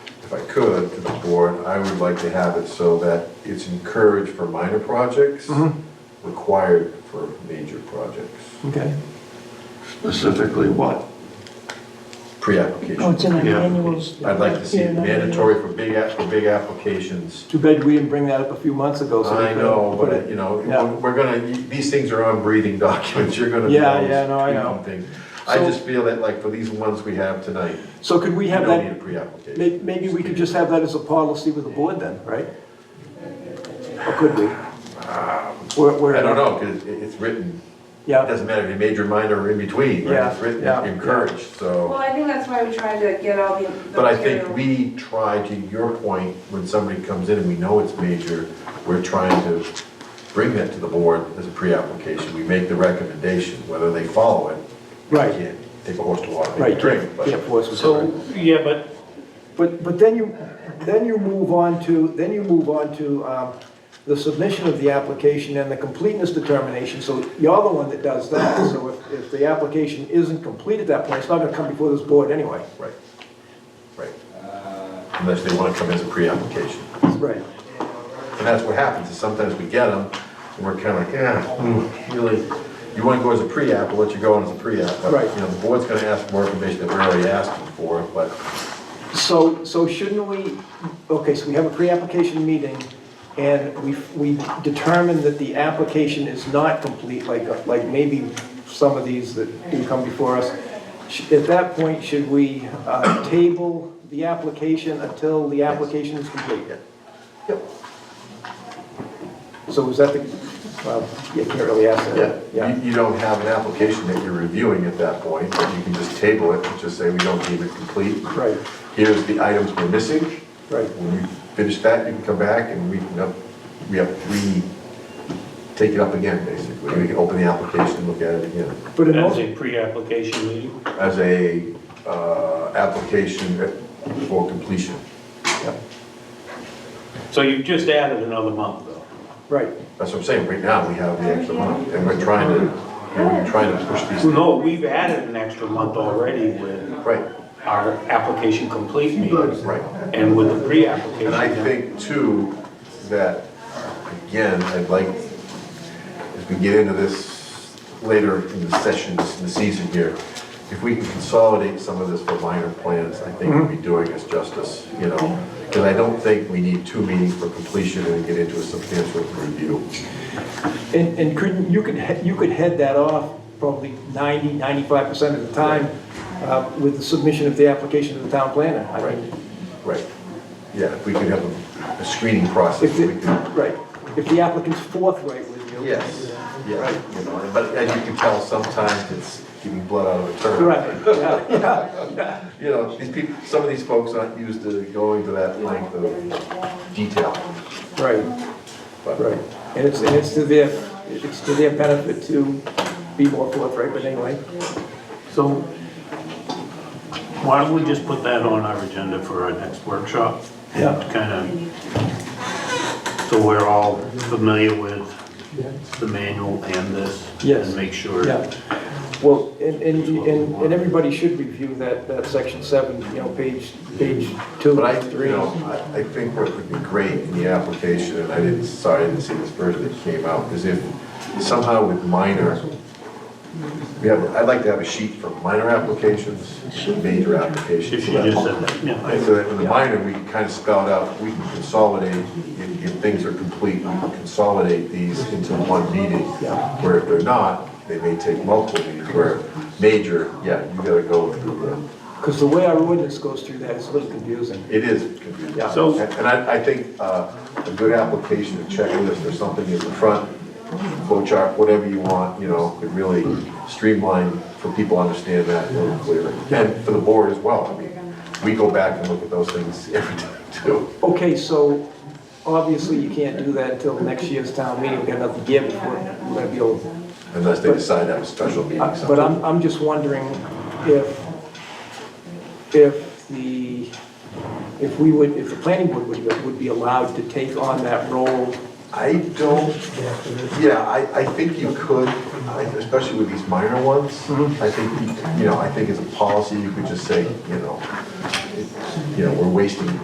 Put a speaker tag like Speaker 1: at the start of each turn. Speaker 1: if I could, to the board, I would like to have it so that it's encouraged for minor projects,
Speaker 2: Mm-hmm.
Speaker 1: required for major projects.
Speaker 2: Okay.
Speaker 3: Specifically what?
Speaker 4: Oh, it's
Speaker 2: Oh,
Speaker 1: Pre-application.
Speaker 4: in an
Speaker 3: Yeah.
Speaker 4: annual.
Speaker 1: I'd like to see
Speaker 4: Yeah,
Speaker 1: it
Speaker 4: in an annual.
Speaker 1: mandatory for big, app- for big applications.
Speaker 2: Too bad we didn't bring that up a few months ago. so we
Speaker 1: I
Speaker 2: could've
Speaker 1: know,
Speaker 2: put
Speaker 1: but
Speaker 2: it-
Speaker 1: you know,
Speaker 2: Yeah.
Speaker 1: we're- we're gonna, these things are on breathing documents, you're gonna. be
Speaker 2: Yeah,
Speaker 1: able to
Speaker 2: yeah, no, I
Speaker 1: tweak
Speaker 2: know.
Speaker 1: some things. I
Speaker 2: So-
Speaker 1: just feel that like for these ones we have tonight,
Speaker 2: So could we
Speaker 1: you
Speaker 2: have
Speaker 1: don't need a
Speaker 2: that,
Speaker 1: pre-application.
Speaker 2: may- maybe we could just have that as a policy with the board then, right? Or could we? Where- where-
Speaker 1: Um, I don't know, cause it- it's written, it
Speaker 2: Yeah,
Speaker 1: doesn't matter if you major, minor, or in between, right?
Speaker 2: Yeah,
Speaker 1: It's written,
Speaker 2: yeah,
Speaker 1: encouraged,
Speaker 5: Well,
Speaker 1: so.
Speaker 5: I think that's why we tried to get all the. the
Speaker 1: But I think
Speaker 5: material.
Speaker 1: we try, to your point, when somebody comes in and we know it's major, we're trying to bring that to the board as a pre-application. We make the recommendation, whether they follow it. we
Speaker 2: Right.
Speaker 1: can't Take a horse to water, make
Speaker 2: right,
Speaker 1: a drink, but.
Speaker 2: can't force it.
Speaker 6: So, yeah, but
Speaker 2: But, but then you, then you move on to, then you move on to um, the submission of the application and the completeness determination, so you're the one that does that. So if, if the application isn't complete at that point, it's not gonna come before this board anyway.
Speaker 1: Right, right. Unless they want to come as a pre-application.
Speaker 2: Right.
Speaker 1: And that's what happens, is sometimes we get them, and we're kind of like, yeah,
Speaker 2: Mm.
Speaker 1: hmm, really, you want to go as a pre-app, we'll let you go on as a pre-app. but,
Speaker 2: Right.
Speaker 1: You know, the board's going to ask for more information that we're already asking for, but
Speaker 2: So, so shouldn't we, okay, so we have a pre-application meeting, and we, we determine that the application is not complete, like, like maybe some of these that do come before us. Sh- At that point, should we uh, table the application until the application is complete?
Speaker 1: Yep.
Speaker 2: So is that the, well, you can't really ask that.
Speaker 1: you, you don't have an application that you're reviewing at that point, but you can just table it and just say, we don't deem it complete.
Speaker 2: Right,
Speaker 1: Here's the items we're missing.
Speaker 2: right.
Speaker 1: When you finish that, you can come back and we can, up- we have, we take it up again, basically. We can open the application, look at it again.
Speaker 2: But in
Speaker 6: as
Speaker 2: most,
Speaker 6: a pre-application meeting,
Speaker 1: As a, uh, application for completion.
Speaker 6: so you've just added another month though.
Speaker 2: right,
Speaker 1: That's what I'm saying, right now, we have the extra month, and we're trying to, we're trying to push these,
Speaker 6: No, we've added an extra month already with
Speaker 1: right,
Speaker 6: our application complete meetings
Speaker 1: right.
Speaker 6: and with the
Speaker 1: And I
Speaker 6: pre-application.
Speaker 1: think too, that, again, I'd like, as we get into this later in the sessions, in the season here, if we can consolidate some of this for minor plans, I think we'd be doing us justice, you know? Because I don't think we need two meetings for completion and get into a substantial review.
Speaker 2: And, and couldn't, you could, he- you could head that off probably 90, 95% of the time uh, with the submission of the application to the town planner. I mean,
Speaker 1: Right, yeah, if we could have a- a screening process,
Speaker 2: If,
Speaker 1: we
Speaker 2: the-
Speaker 1: could,
Speaker 2: right, if the applicant's forthright with you.
Speaker 1: yes, yeah, you know, but as you can tell, sometimes it's giving blood out of a turnip.
Speaker 2: Right, yeah, yeah,
Speaker 1: You know, these people, some of these folks aren't used to going to that length of detail,
Speaker 2: right,
Speaker 1: but,
Speaker 2: right. And it's, and it's to their, it's to their benefit to be more forthright, but anyway.
Speaker 6: So why don't we just put that on our agenda for our next workshop?
Speaker 2: Yeah.
Speaker 6: Kind of, so we're all familiar with the manual and this.
Speaker 2: Yes.
Speaker 6: And make sure.
Speaker 2: Yeah. Well, and, and, and and everybody should review that, that section seven, you know, page, page two.
Speaker 1: but I,
Speaker 2: three.
Speaker 1: you know, I, I think what would be great in the application, and I didn't, sorry, I didn't see this version that came out, is if somehow with minor, we have, I'd like to have a sheet for minor applications, major
Speaker 6: She
Speaker 1: applications.
Speaker 6: she just said that, yeah. I-
Speaker 1: And so that in the minor, we can kind of spell it out, we can consolidate, if, if things are complete, we can consolidate these into one meeting. Where if they're not, they may take multiple meetings, where major, yeah, you gotta go through
Speaker 2: Because the way our ordinance goes through that is a little confusing.
Speaker 1: the, it is confusing.
Speaker 2: Yeah.
Speaker 6: So-
Speaker 1: And and I, I think, uh, a good application, a checklist or something in the front, flow chart, whatever you want, you know, could really streamline for people to understand that a little clearer. And for the board as well, I mean, we go back and look at those things every time too.
Speaker 2: Okay, so obviously you can't do that until next year's town meeting, we've got another year before we're gonna be able.
Speaker 1: Unless they decide to have a special meeting
Speaker 2: Uh, But
Speaker 1: something.
Speaker 2: I'm, I'm just wondering if, if the, if we would, if the planning board would, would be allowed to take on that role.
Speaker 1: I don't, yeah, I, I think you could, I- especially with these minor ones.
Speaker 2: Mm-hmm.
Speaker 1: I think, you know, I think as a policy, you could just say, you know, it- you know, we're wasting